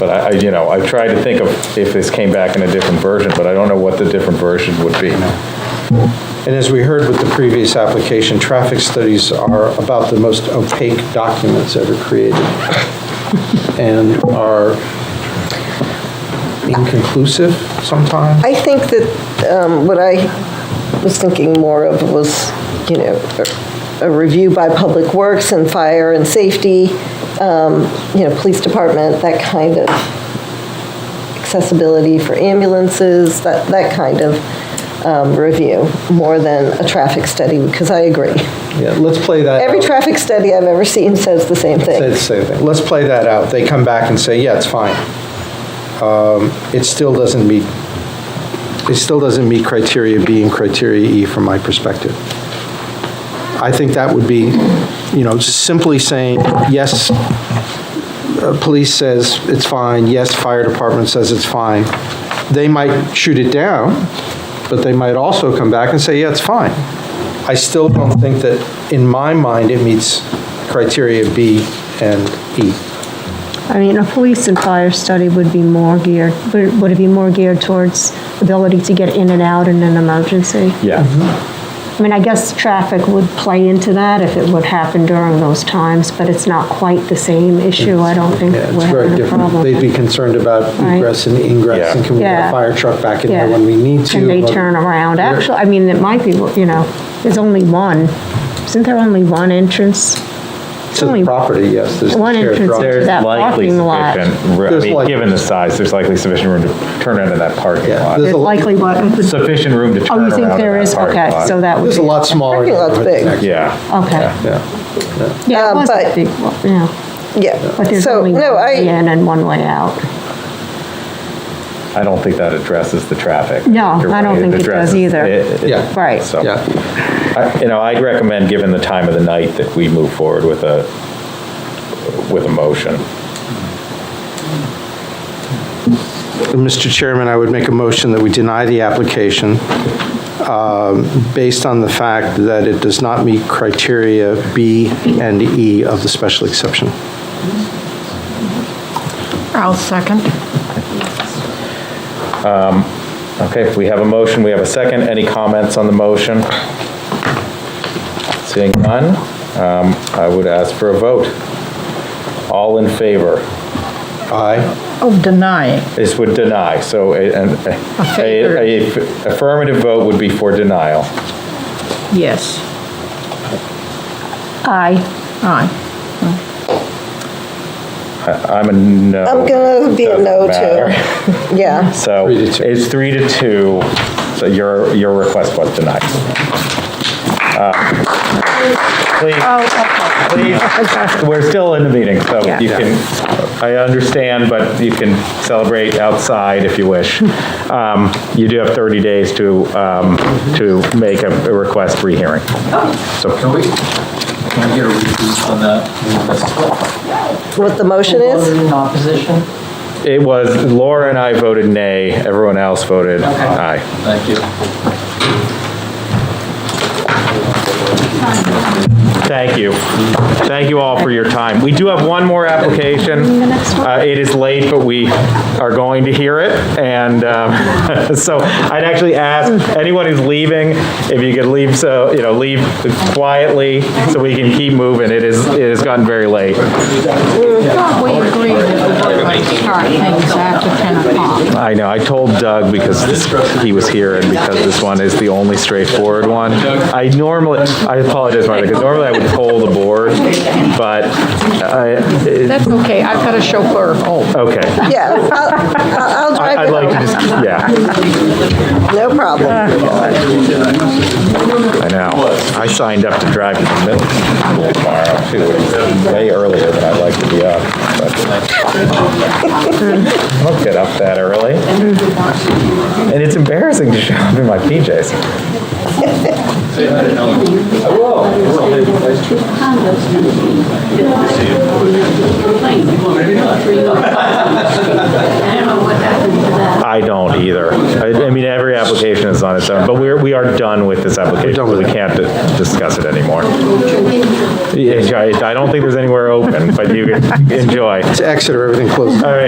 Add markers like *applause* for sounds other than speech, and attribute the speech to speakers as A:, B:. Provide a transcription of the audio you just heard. A: But I, I, you know, I've tried to think of if this came back in a different version, but I don't know what the different version would be.
B: And as we heard with the previous application, traffic studies are about the most opaque documents ever
C: *laughs*
B: created and are inconclusive sometimes.
C: I think that um, what I was thinking more of was, you know, a review by Public Works and Fire and Safety, um, you know, Police Department, that kind of accessibility for ambulances, that, that kind of um, review, more than a traffic study, because I agree.
B: Yeah, let's play that.
C: Every
B: out.
A: Oh.
C: traffic study I've ever seen says the same
B: Say the
C: thing.
B: same thing. Let's play that out. They come back and say, yeah, it's fine. Um, It still doesn't meet, it still doesn't meet criteria B and criteria E from my perspective. I think that would be, you know, just simply saying, yes, uh, police says it's fine, yes, fire department says it's fine. They might shoot it down, but they might also come back and say, yeah, it's fine. I still don't think that, in my mind, it meets criteria B and E.
D: I mean, a police and fire study would be more geared, would would it be more geared towards ability to get in and out in an emergency?
B: Mm-hmm.
A: Yeah,
D: I mean, I guess traffic would play into that if it would happen during those times, but it's not quite the same issue. I don't think
B: Yeah, it's
D: we're
B: very
D: having a
B: different.
D: problem.
B: They'd be concerned about
D: Right.
B: egress and ingress, and can we get a
D: Yeah.
B: fire truck back in there
D: Yeah.
B: when we need to?
D: And they
B: but-
D: turn around. Actually, I mean, it might be, you know, there's only one. Isn't there only one entrance?
B: To the
D: only
B: property, yes, there's.
D: one
B: shared
D: entrance
B: drive.
D: there.
A: there's
D: That
A: likely
D: parking lot.
A: sufficient, room- I
B: There's
A: mean,
B: like-
A: given the size, there's likely sufficient room to turn into that parking
B: Yeah,
A: lot.
B: there's
D: There's
B: a-
D: likely what? Oh,
A: Sufficient room to turn
D: you
A: around in
D: think there
A: that
D: is?
A: parking
D: Okay,
A: lot.
D: so that would
B: There's
D: be.
B: a lot smaller.
C: Parking lot's
B: neighborhood
C: big.
B: than that.
A: Yeah,
D: Okay.
B: Yeah,
D: Yeah, it
C: Um,
D: was a
C: but-
D: big one, yeah.
C: Yeah.
D: But there's
C: So,
D: only
C: no,
D: one
C: I-
D: way in and one way out.
A: I don't think that addresses the traffic.
D: No,
A: You're
D: I don't
A: right,
D: think it does
A: addresses-
D: either.
A: it- it-
B: Yeah.
D: Right.
A: So-
B: yeah.
A: I- You know, I'd recommend, given the time of the night, that we move forward with a, with a motion.
B: Mr. Chairman, I would make a motion that we deny the application um, based on the fact that it does not meet criteria B and E of the special exception.
E: I'll second.
A: Okay, we have a motion, we have a second. Any comments on the motion? Seeing none, um, I would ask for a vote. All in favor?
B: Aye.
E: Oh, denying.
A: This would deny, so a- an- a-
E: favor.
A: a a affirmative vote would be for denial.
E: Yes.
D: Aye.
E: Aye.
A: I'm a no.
C: I'm gonna be a
A: Doesn't
C: no
A: matter.
C: too. Yeah.
A: So
B: Three to two.
A: it's three to two, so your, your request was denied. Uh, Please, please, we're still in the meeting, so
E: Yeah.
A: you can, I understand, but you can celebrate outside if you wish. Um, You do have 30 days to, um, to make a a request for rehearing. So
F: Can we, can we get a repeat on that?
C: What the motion is?
F: Voted in opposition?
A: it was, Laura and I voted nay, everyone else voted aye.
F: Thank you.
A: Thank you. Thank you all for your time. We do have one more application. Uh, It is late, but we are going to hear it, and um, *laughs* so I'd actually ask anyone who's leaving, if you could leave, so, you know, leave quietly so we can keep moving. It is, it has gotten very late.
E: We agree that we would like to start things after 10 o'clock.
A: I know, I told Doug because this- he was here and because this one is the only straightforward one. I normally, I apologize, Martha, because normally I would poll the board, but I,
E: That's okay, I've got a chauffeur at home.
A: okay.
C: Yeah. I'll- I'll, I'll drive
A: I'd
C: it
A: like to,
C: home.
A: just yeah,
C: No problem.
A: I know. I signed up to drive to the middle school tomorrow, too, which is way earlier than I like to be up. but- I don't get up that early. And it's embarrassing to show up in my PJs. I don't either. I I mean, every application is on its own, but we're, we are done with this application. so We can't di- discuss it anymore. Yeah, I I don't think there's anywhere open, but you can enjoy. *laughs*
B: To Exeter, everything closes.
A: All right.